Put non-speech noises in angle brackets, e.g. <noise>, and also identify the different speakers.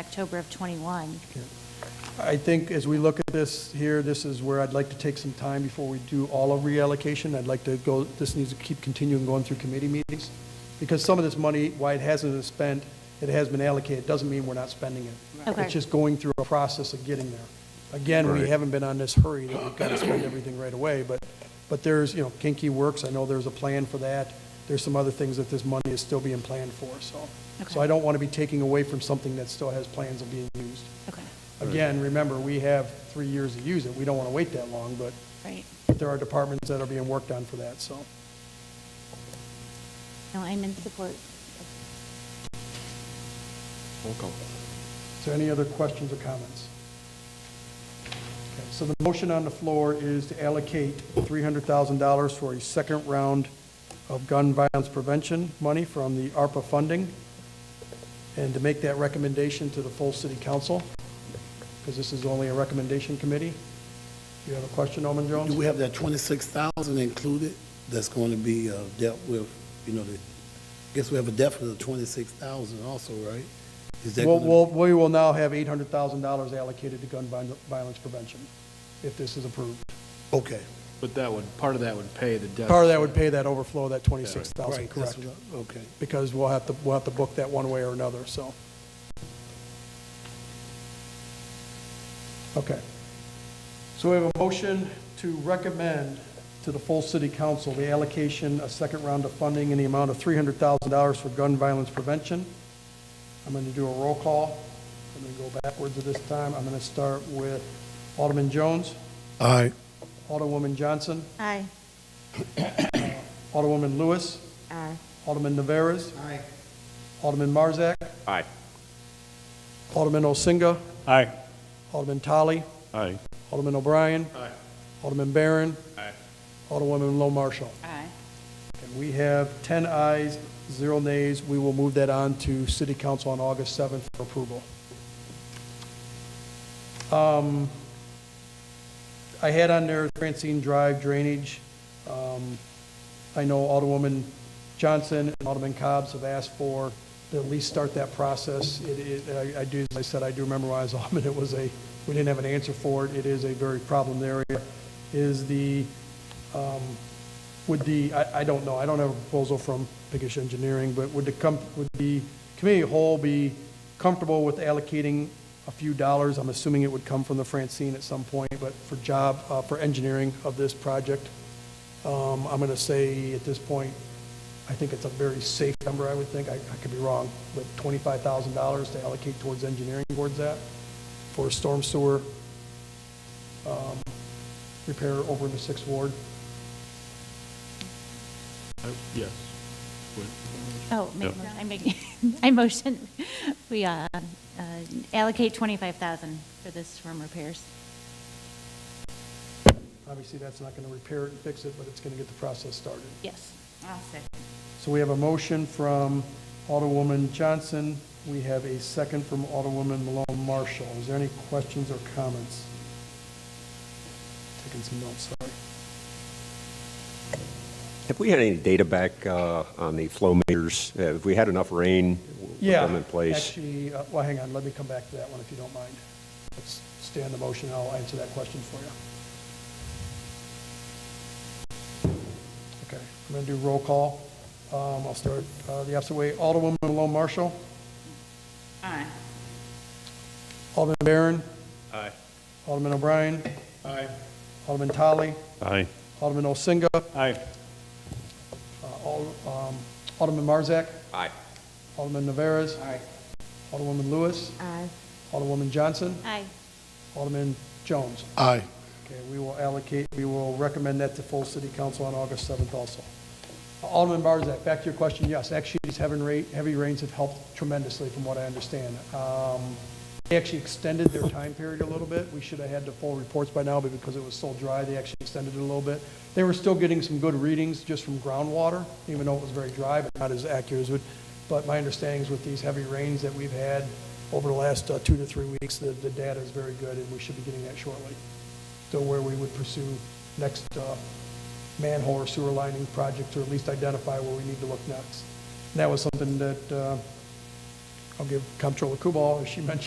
Speaker 1: October of '21.
Speaker 2: I think as we look at this here, this is where I'd like to take some time before we do all of reallocation. I'd like to go, this needs to keep continuing going through committee meetings, because some of this money, why it hasn't been spent, it has been allocated, doesn't mean we're not spending it.
Speaker 1: Okay.
Speaker 2: It's just going through a process of getting there. Again, we
Speaker 3: Right.
Speaker 2: haven't been on this hurry that we've got to spend everything right away, but, but there's, you know, Kinky Works, I know there's a plan for that. There's some other things that this money is still being planned for, so.
Speaker 1: Okay.
Speaker 2: So I don't want to be taking away from something that still has plans of being used.
Speaker 1: Okay,
Speaker 2: Again, remember, we have three years to use it. We don't want to wait that long, but
Speaker 1: right.
Speaker 2: there are departments that are being worked on for that, so.
Speaker 1: No, I'm in support.
Speaker 3: Roll call.
Speaker 2: Is there any other questions or comments? Okay, So the motion on the floor is to allocate $300,000 for a second round of gun violence prevention money from the ARPA funding, and to make that recommendation to the full city council, because this is only a recommendation committee. Do you have a question, Alderman Jones?
Speaker 4: Do we have that twenty-six thousand included that's going to be uh, dealt with, you know, the, guess we have a deficit of twenty-six thousand also, right? Is that
Speaker 2: We'll,
Speaker 4: gonna-
Speaker 2: we'll- we will now have $800,000 allocated to gun vi- violence prevention, if this is approved.
Speaker 4: Okay.
Speaker 5: But that would, part of that would pay the debt.
Speaker 2: Part of that would pay that overflow, that 26,000,
Speaker 4: Right, that's
Speaker 2: correct?
Speaker 4: what I- Okay.
Speaker 2: Because we'll have to, we'll have to book that one way or another, so. Okay. So we have a motion to recommend to the full city council the allocation, a second round of funding in the amount of $300,000 for gun violence prevention. I'm going to do a roll call. I'm going to go backwards at this time. I'm going to start with Alderman Jones,
Speaker 4: All right.
Speaker 2: Alderwoman Johnson,
Speaker 1: Aye.
Speaker 2: Alderwoman Lewis,
Speaker 1: Aye.
Speaker 2: Alderman Naveras. Aye. Alderman Marzak.
Speaker 3: Aye.
Speaker 2: Alderman Osinga.
Speaker 3: Aye.
Speaker 2: Alderman Tully.
Speaker 3: Aye.
Speaker 2: Alderman O'Brien.
Speaker 5: Aye.
Speaker 2: Alderman Barron.
Speaker 3: Aye.
Speaker 2: Alderwoman Lowe Marshall.
Speaker 1: Aye.
Speaker 2: And we have 10 ayes, zero nays. We will move that on to City Council on August 7th for approval. Um, I had on there Francine Drive drainage. Um, I know Alderwoman Johnson and Alderman Cobb's have asked for, to at least start that process. It, it, I I do, as I said, I do remember when <laughs> I was Alderman, it was a, we didn't have an answer for it. It is a very problem area. Is the, would the, I, I don't know, I don't have a proposal from Pickish Engineering, but would the, com- would the committee of whole be comfortable with allocating a few dollars? I'm assuming it would come from the Francine at some point, but for job, uh, for engineering of this project. Um, I'm gonna say at this point, I think it's a very safe number, I would think, I, I could be wrong, but twenty-five thousand dollars to allocate towards engineering towards that for storm sewer, um, repair over in the sixth ward.
Speaker 5: I- Yes. Would-
Speaker 1: Oh, make- I make, <laughs> I motion, we uh, uh, allocate 25,000 for this storm repairs.
Speaker 2: Obviously, that's not going to repair it and fix it, but it's going to get the process started.
Speaker 1: Yes. I'll second.
Speaker 2: So we have a motion from Alderwoman Johnson. We have a second from Alderwoman Malone Marshall. Is there any questions or comments? Taking some notes, sorry.
Speaker 6: Have we had any data back uh, on the flow meters? Uh, Have we had enough rain? with
Speaker 2: Yeah.
Speaker 6: them in place?
Speaker 2: Actually, uh, well, hang on, let me come back to that one if you don't mind. Let's stay on the motion, and I'll answer that question for you. Okay, I'm going to do roll call. Um, I'll start uh, the opposite way. Alderwoman Malone Marshall?
Speaker 1: Aye.
Speaker 2: Alderman Barron?
Speaker 3: Aye.
Speaker 2: Alderman O'Brien?
Speaker 5: Aye.
Speaker 2: Alderman Tully?
Speaker 3: Aye.
Speaker 2: Alderman Osinga?
Speaker 3: Aye.
Speaker 2: uh, Al- um, Alderman Marzak?
Speaker 6: Aye.
Speaker 2: Alderman Naveras? Aye. Alderwoman Lewis?
Speaker 1: Aye.
Speaker 2: Alderwoman Johnson?
Speaker 1: Aye.
Speaker 2: Alderman Jones?
Speaker 4: Aye.
Speaker 2: Okay, we will allocate, we will recommend that to full city council on August 7th also. Alderman Barzak, back to your question, yes, actually, these heaven ra- heavy rains have helped tremendously, from what I understand. Um, They actually extended their time period a little bit, we should have had the full reports by now, but because it was so dry, they actually extended it a little bit. They were still getting some good readings just from groundwater, even though it was very dry, but not as accurate as would. But my understanding is with these heavy rains that we've had over the last uh, two to three weeks, the, the data is very good, and we should be getting that shortly to where we would pursue next uh, manhole or sewer lining project, or at least identify where we need to look next. And that was something that uh, I'll give Comptroller Kubal, as she <laughs> mentioned,